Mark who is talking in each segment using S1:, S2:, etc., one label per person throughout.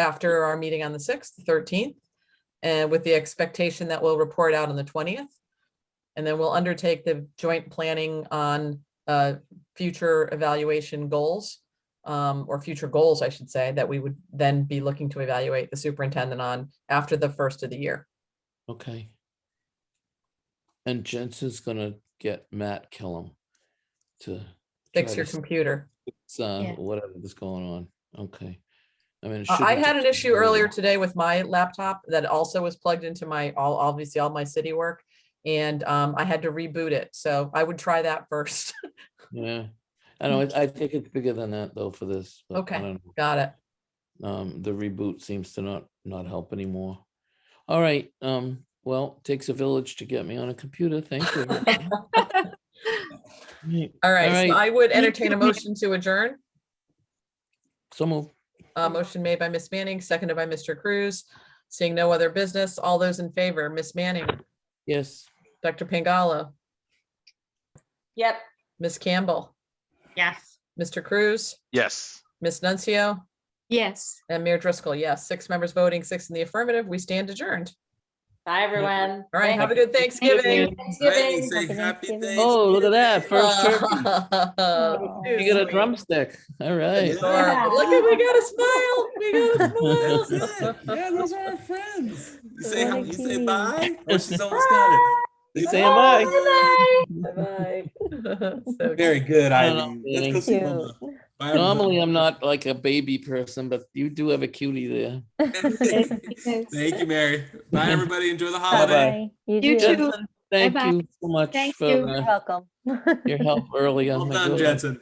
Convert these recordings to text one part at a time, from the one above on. S1: after our meeting on the sixth, thirteenth, and with the expectation that we'll report out on the twentieth. And then we'll undertake the joint planning on uh, future evaluation goals um, or future goals, I should say, that we would then be looking to evaluate the superintendent on after the first of the year.
S2: Okay. And Jensen's gonna get Matt Killam to.
S1: Fix
S2: try
S1: your
S2: to s-
S1: computer.
S2: s- uh,
S3: Yeah.
S2: Whatever is going on, okay. I mean. it
S1: Uh, I
S2: shouldn't
S1: had an
S2: take
S1: issue
S2: very
S1: earlier
S2: long.
S1: today with my laptop that also was plugged into my, all, obviously all my city work. And um, I had to reboot it. So I would try that first.
S2: Yeah, I know, I I think it's bigger than that though for this. but I
S1: Okay.
S2: don't know.
S1: Got it.
S2: Um, the reboot seems to not, not help anymore. All right, um, well, takes a village to get me on a computer, thank you. Right,
S1: All right.
S2: right.
S1: So I would
S3: Me
S1: entertain a
S3: too, ma'am.
S1: motion to adjourn.
S2: So move,
S1: Uh, motion made by Miss Manning, seconded by Mr. Cruz. Seeing no other business, all those in favor, Miss Manning,
S2: yes.
S1: Dr. Pingala,
S3: Yep.
S1: Miss Campbell,
S3: Yes.
S1: Mr. Cruz,
S4: Yes.
S1: Miss Nuncio,
S3: Yes.
S1: and Mayor Driscoll. Yes, six members voting, six in the affirmative. We stand adjourned.
S3: Bye, everyone.
S1: All right. Have a good Thanksgiving.
S5: Hey, say happy Thanksgiving.
S2: Oh, look at that, first turkey.
S1: Oh,
S2: You get a
S1: sweet.
S2: drumstick, all right.
S5: Yeah.
S1: Adorable. Look at, we got a smile. We got a smile.
S5: That's it. Yeah, those are our friends. You say,
S6: What a
S5: you say
S6: cutie.
S5: bye? Oh, she's almost got it.
S2: Say bye.
S1: So
S5: Very good,
S2: I don't
S5: Ivy.
S2: know,
S5: Let's go see
S6: Cute.
S5: Mama. Bye,
S2: Normally,
S5: everybody.
S2: I'm not like a baby person, but you do have a cutie there.
S5: Thank you, Mary. Bye, everybody. Enjoy the holiday.
S6: Bye-bye. You
S3: You
S6: do.
S3: too.
S2: Jensen, Thank
S3: Bye-bye.
S2: you so much
S3: Thank you.
S2: for
S6: You're
S2: uh,
S6: welcome.
S2: your help early
S5: Well
S2: on.
S5: done, Jensen.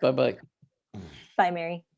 S2: Bye bye.
S6: Bye, Mary.